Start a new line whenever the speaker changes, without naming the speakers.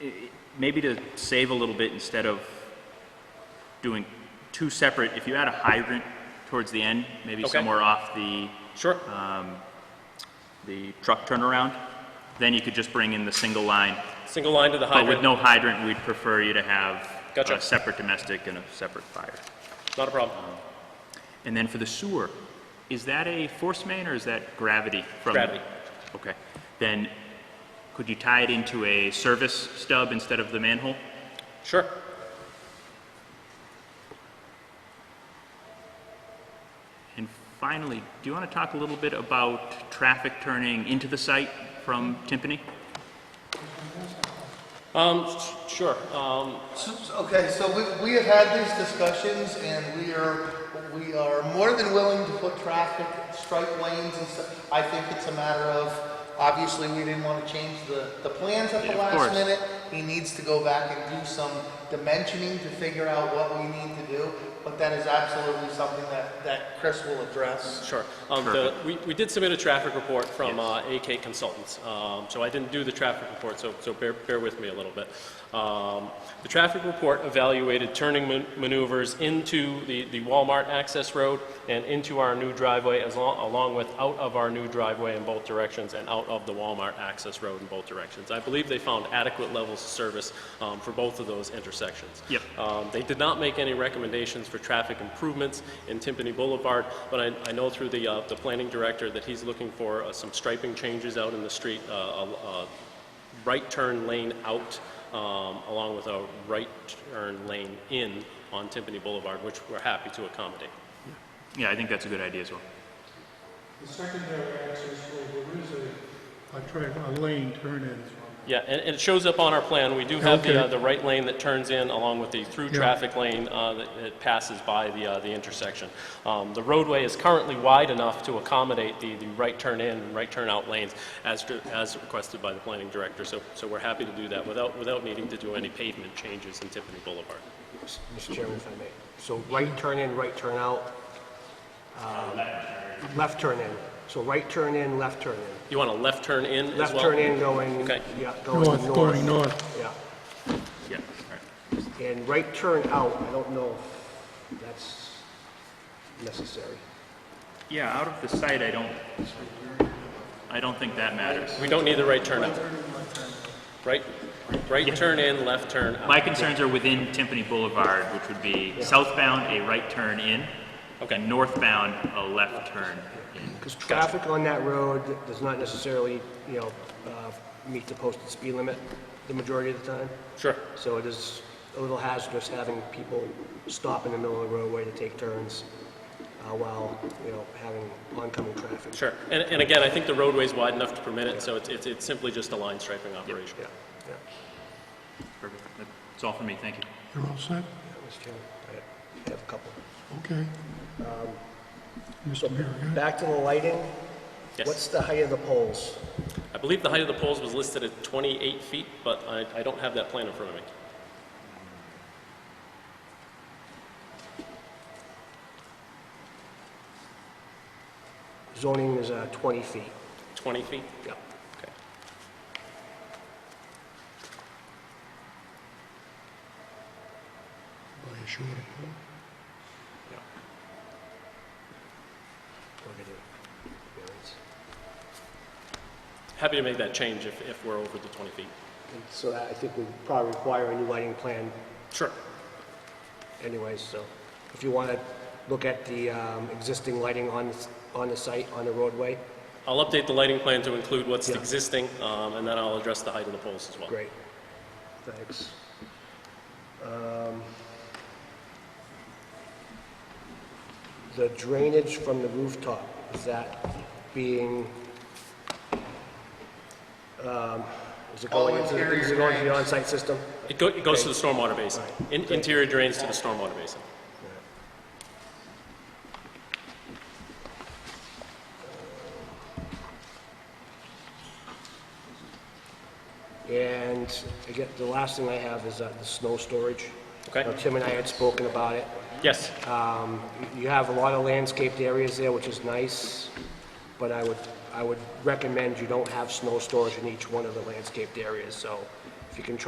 i- i- maybe to save a little bit, instead of doing two separate, if you add a hydrant towards the end, maybe
Okay.
somewhere off the,
Sure.
the truck turnaround, then you could just bring in the single line.
Single line to the
But with
hydrant,
no hydrant, we'd prefer you to have
Gotcha.
a separate domestic and a separate fire.
not a problem.
Um, And then for the sewer, is that a force main or is that gravity from?
Gravity.
Okay. Then could you tie it into a service stub instead of the manhole?
Sure.
And finally, do you want to talk a little bit about traffic turning into the site from Timpani?
Um, s- sure. Um,
So- so- Okay, so we, we have had these discussions and we are, we are more than willing to put traffic, strike lanes and stuff. I think it's a matter of, obviously, we didn't want to change the, the plans at the
Of
last
course.
minute. He needs to go back and do some dimensioning to figure out what we need to do, but that is absolutely something that, that Chris will address.
Sure. Um, the, we, we did submit a traffic report from uh, AK Consultants. Um, so I didn't do the traffic report, so, so bear, bear with me a little bit. Um, the traffic report evaluated turning man- maneuvers into the, the Walmart access road and into our new driveway, as long, along with out of our new driveway in both directions and out of the Walmart access road in both directions. I believe they found adequate levels of service um, for both of those intersections.
Yep.
Um, They did not make any recommendations for traffic improvements in Timpani Boulevard, but I, I know through the, uh, the planning director that he's looking for uh, some striping changes out in the street, uh, a, a right turn lane out, um, along with a right turn lane in on Timpani Boulevard, which we're happy to accommodate.
Yeah, I think that's a good idea as well.
The secondary access road, there is a, a turn, a lane turn in.
Yeah, and, and it shows up on our plan. We do have the, uh,
Okay.
the right lane that turns in along with the through
Yeah.
traffic lane, uh, that, that passes by the, uh, the intersection. Um, the roadway is currently wide enough to accommodate the, the right turn in and right turn out lanes as, dr- as requested by the planning director. So, so we're happy to do that without, without needing to do any pavement changes in Tiffany Boulevard.
Mr. Chairman, if I may. So right turn in, right turn out. um, Left turn in. So right turn in, left turn in.
You want a left turn in as
Left
well?
turn in going,
Okay.
yeah,
North,
going
going
north.
north.
Yeah.
Yeah, all right.
And right turn out, I don't know if that's necessary.
Yeah, out of the site, I don't, I don't think that matters.
We don't need the right turn out. Right, right turn in, left turn out.
My concerns are within Timpani Boulevard, which would be southbound, a right turn in.
Okay.
And northbound, a left turn in.
Because traffic on that road does not necessarily, you know, uh, meet the posted speed limit the majority of the time.
Sure.
So it is a little hazardous having people stop in the middle of the roadway to take turns uh, while, you know, having oncoming traffic.
Sure, and, and again, I think the roadway's wide enough to permit it, so it's, it's, it's simply just a line striping operation.
Yeah, yeah.
Perfect. That's all for me, thank you.
You're all set?
That was true. I have a couple.
Okay. Mr. Mayor,
Back to the lighting. What's
Yes,
the height of the poles?
I believe the height of the poles was listed at twenty-eight feet, but I, I don't have that plan in front of me.
Zoning is uh, 20 feet.
Twenty feet?
Yep.
Okay.
by a shorter pole.
We're gonna do variance.
Happy to make that change if, if we're over the twenty feet.
And So I think we probably require a new lighting plan
Sure.
anyways, so if you want to look at the um, existing lighting on, s- on the site, on the roadway,
I'll update the lighting plan to include what's
Yeah.
existing, um, and then I'll address the height of the poles as well.
Great, thanks. Um, The drainage from the rooftop, is that being, um, is it
All
going into, the- is it
interior
going to the
drains.
on-site system?
It go, it goes to the stormwater basin. In- Interior drains to the stormwater basin.
And again, the last thing I have is uh, the snow storage.
Okay.
Now, Tim and I had spoken about it.
Yes,
Um, You have a lot of landscaped areas there, which is nice, but I would, I would recommend you don't have snow storage in each one of the landscaped areas, so if you can try